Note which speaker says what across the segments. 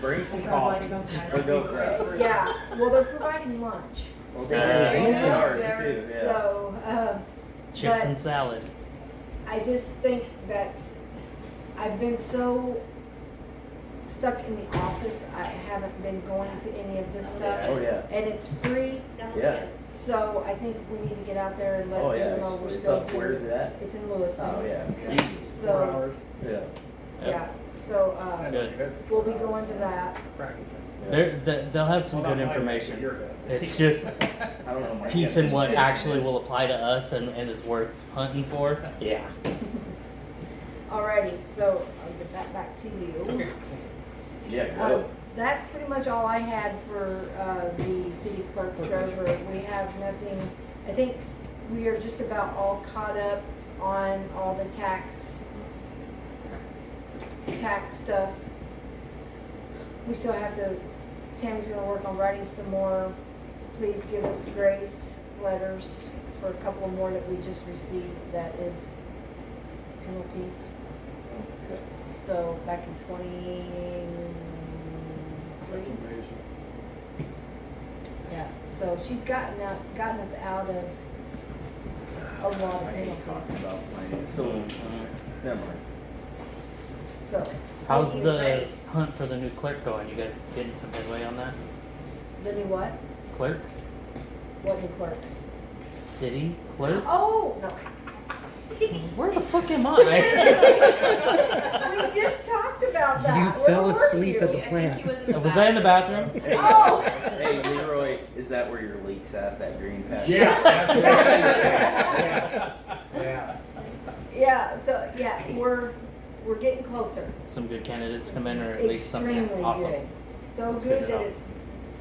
Speaker 1: bring some
Speaker 2: Sounds
Speaker 1: coffee
Speaker 2: like something.
Speaker 1: or milk crap.
Speaker 3: Yeah, well, they're providing lunch.
Speaker 1: Okay,
Speaker 4: Yeah.
Speaker 1: drinks and
Speaker 3: Yeah.
Speaker 1: ours too, yeah.
Speaker 3: So, um,
Speaker 4: Chips
Speaker 3: But-
Speaker 4: and salad.
Speaker 3: I just think that I've been so stuck in the office, I haven't been going to any of this
Speaker 1: Oh,
Speaker 3: stuff.
Speaker 1: yeah,
Speaker 3: And it's free,
Speaker 1: yeah,
Speaker 3: so I think we need to get out there and let
Speaker 1: oh, yeah,
Speaker 3: people
Speaker 1: it's,
Speaker 3: know we're
Speaker 1: it's
Speaker 3: still
Speaker 1: up, where is
Speaker 3: here.
Speaker 1: it at?
Speaker 3: It's in Lewiston.
Speaker 1: Oh, yeah,
Speaker 5: Four
Speaker 3: So,
Speaker 5: hours.
Speaker 1: yeah,
Speaker 3: yeah, so, uh,
Speaker 4: Good.
Speaker 3: we'll be going to that.
Speaker 5: Practically.
Speaker 1: yeah,
Speaker 4: They're, they- they'll have some
Speaker 5: Well,
Speaker 4: good
Speaker 5: not like
Speaker 4: information.
Speaker 5: you're good.
Speaker 4: It's just
Speaker 1: I don't know. my
Speaker 4: piece and what
Speaker 1: guess.
Speaker 4: actually will apply to us and, and is worth hunting for. Yeah.
Speaker 3: Alrighty, so I'll get that back to you.
Speaker 5: Okay.
Speaker 1: Yeah,
Speaker 3: Um,
Speaker 1: go,
Speaker 3: That's pretty much all I had for uh, the city clerk treasurer. We have nothing, I think we are just about all caught up on all the tax, tax stuff. We still have to, Tammy's gonna work on writing some more, please give us grace letters for a couple more that we just received that is penalties.
Speaker 1: okay,
Speaker 3: So back in twenty-three,
Speaker 5: That's amazing.
Speaker 3: yeah, so she's gotten out, gotten us out of a lot of
Speaker 1: I hate talking
Speaker 3: penalties,
Speaker 1: about finance, so, never mind.
Speaker 3: so.
Speaker 4: How's
Speaker 3: He's
Speaker 4: the
Speaker 3: ready.
Speaker 4: hunt for the new clerk going? You guys getting some headway on that?
Speaker 3: The new what?
Speaker 4: Clerk?
Speaker 3: What new clerk?
Speaker 4: City clerk?
Speaker 3: Oh, no.
Speaker 4: Where the fuck am I?
Speaker 3: We just talked about that.
Speaker 6: You
Speaker 3: Where
Speaker 6: fell
Speaker 3: were
Speaker 6: asleep
Speaker 3: you?
Speaker 6: at the
Speaker 3: Yeah.
Speaker 6: plant.
Speaker 4: Was I in the bathroom?
Speaker 1: Hey,
Speaker 3: Oh.
Speaker 1: Hey, Leroy, is that where your leaks at? That green patch?
Speaker 5: Yeah.
Speaker 3: Yeah, so, yeah, we're, we're getting closer.
Speaker 4: Some good candidates come in, or at least some.
Speaker 3: Extremely
Speaker 4: yeah, awesome.
Speaker 3: good. So
Speaker 4: That's good
Speaker 3: good
Speaker 4: to
Speaker 3: that
Speaker 4: know.
Speaker 3: it's,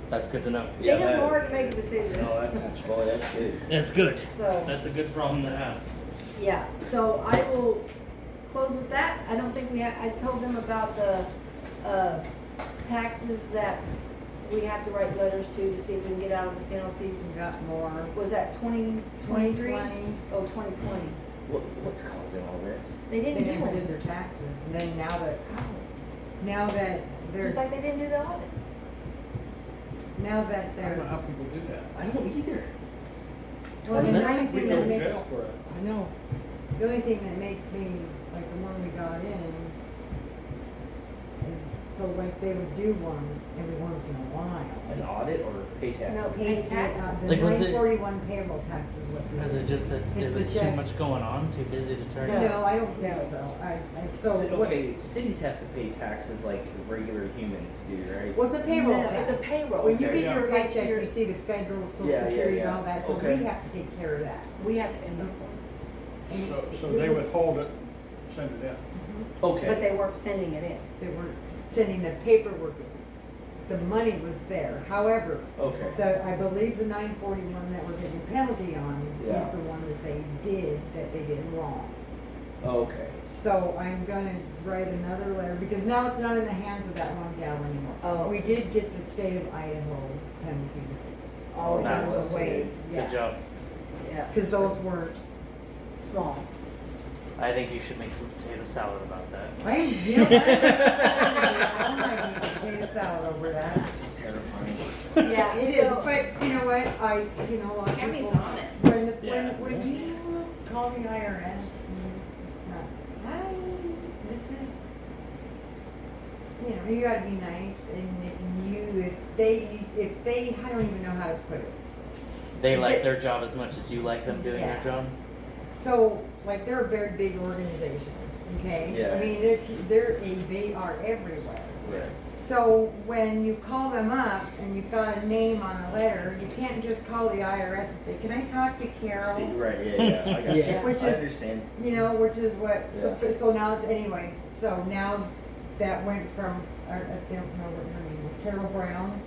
Speaker 4: That's good to know.
Speaker 3: they
Speaker 1: Yeah,
Speaker 3: have
Speaker 1: that-
Speaker 3: more to make a decision,
Speaker 1: No, that's, boy, that's good.
Speaker 4: That's good.
Speaker 3: so.
Speaker 4: That's a good problem to have.
Speaker 3: Yeah, so I will close with that. I don't think we, ha- I told them about the, uh, taxes that we have to write letters to to see if we can get out of the penalties.
Speaker 2: We've got more.
Speaker 3: Was that twenty twenty-three?
Speaker 2: 2020.
Speaker 3: Oh, twenty twenty.
Speaker 1: What, what's causing all this?
Speaker 3: They
Speaker 2: They
Speaker 3: didn't do
Speaker 2: never did
Speaker 3: it,
Speaker 2: their taxes, and then now that, oh, now that
Speaker 3: just
Speaker 2: they're,
Speaker 3: like they didn't do the audits.
Speaker 2: now that
Speaker 5: I don't know
Speaker 2: they're.
Speaker 5: how people do that.
Speaker 1: I don't either.
Speaker 2: Well, the
Speaker 4: Well, that's-
Speaker 2: only
Speaker 5: We
Speaker 2: thing
Speaker 5: go
Speaker 2: that
Speaker 5: to
Speaker 2: makes,
Speaker 5: jail for it.
Speaker 2: I know, the only thing that makes me, like, the one we got in is, so like, they would do one every once in a while.
Speaker 1: An audit or pay tax?
Speaker 3: No, pay
Speaker 2: Pay
Speaker 3: taxes.
Speaker 2: tax, the
Speaker 4: Like, was it-
Speaker 2: nine forty-one payroll tax is what this
Speaker 4: Is it just that there
Speaker 2: It's
Speaker 4: was
Speaker 2: the
Speaker 4: too
Speaker 2: check.
Speaker 4: much going on, too busy to turn?
Speaker 3: No.
Speaker 2: No, I don't think so, I, I, so
Speaker 1: So,
Speaker 2: what,
Speaker 1: okay, cities have to pay taxes like regular humans do, right?
Speaker 2: what's a payroll
Speaker 3: No,
Speaker 2: tax?
Speaker 3: It's a payroll.
Speaker 2: When you
Speaker 1: Okay.
Speaker 2: get your
Speaker 3: Yeah.
Speaker 2: paycheck, you see the federal,
Speaker 1: Yeah,
Speaker 2: social
Speaker 1: yeah,
Speaker 2: security and
Speaker 1: yeah.
Speaker 2: all that, so
Speaker 1: Okay.
Speaker 2: we have to take care of that.
Speaker 3: We have to end up,
Speaker 2: And
Speaker 5: So,
Speaker 2: it-
Speaker 5: so
Speaker 2: it
Speaker 5: they
Speaker 2: was-
Speaker 5: withhold it, send it in.
Speaker 3: but
Speaker 1: Okay.
Speaker 3: they weren't sending it in.
Speaker 2: They were sending the paperwork in. The money was there, however,
Speaker 1: Okay.
Speaker 2: the, I believe the nine forty-one that we're getting a penalty on
Speaker 1: Yeah.
Speaker 2: is the one that they did, that they did wrong.
Speaker 1: Okay.
Speaker 2: So I'm gonna write another letter, because now it's not in the hands of that one gal anymore.
Speaker 3: Oh.
Speaker 2: We did get the state of Idaho penalties,
Speaker 1: Oh,
Speaker 3: All of them
Speaker 4: Nice.
Speaker 3: were way,
Speaker 2: yeah,
Speaker 4: Good job.
Speaker 3: yeah,
Speaker 2: cause those weren't
Speaker 3: small.
Speaker 4: I think you should make some potato salad about that.
Speaker 2: I am guilty. I might need potato salad over that.
Speaker 1: This is terrifying.
Speaker 3: Yeah,
Speaker 2: It is,
Speaker 3: so,
Speaker 2: but you know what, I, you know, a lot of people.
Speaker 7: Cammy's on it.
Speaker 2: When, the-
Speaker 4: Yeah.
Speaker 2: when, when you call the IRS, it's not, hi, this is, you know, you gotta be nice, and if you, if they, if they, I don't even know how to put it.
Speaker 4: They like their job as much as you like them doing
Speaker 2: Yeah.
Speaker 4: their job.
Speaker 2: So, like, they're a very big organization, okay?
Speaker 1: Yeah.
Speaker 2: I mean, there's, they're, a- they are everywhere.
Speaker 1: Right.
Speaker 2: So when you call them up and you've got a name on a letter, you can't just call the IRS and say, can I talk to
Speaker 1: Steve,
Speaker 2: Carol?
Speaker 1: right, yeah, yeah, I got you.
Speaker 2: Yeah. Which
Speaker 1: I
Speaker 2: is-
Speaker 1: understand.
Speaker 2: You know, which is what, so,
Speaker 1: Yeah.
Speaker 2: so now it's, anyway, so now that went from, I I don't know what her name was, Carol Brown.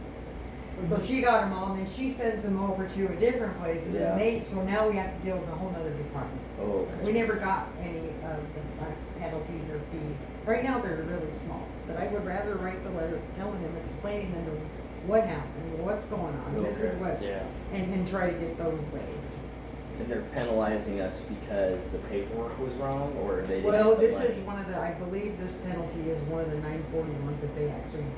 Speaker 2: So
Speaker 1: Mm-hmm.
Speaker 2: she got them all, and then she sends them over to a different place, and
Speaker 1: Yeah.
Speaker 2: then they, so now we have to deal with a whole nother department.
Speaker 1: Oh,
Speaker 2: We
Speaker 1: okay.
Speaker 2: never got any of the like, penalties or fees. Right now, they're really small, but I would rather write the letter telling them, explaining them what happened, what's going on, this is
Speaker 1: Okay.
Speaker 2: what,
Speaker 4: Yeah.
Speaker 2: and, and try to get those waived.
Speaker 1: And they're penalizing us because the paperwork was wrong or they didn't.
Speaker 2: Well,
Speaker 1: have the
Speaker 2: this
Speaker 1: money?
Speaker 2: is one of the, I believe this penalty is one of the nine forty ones that they actually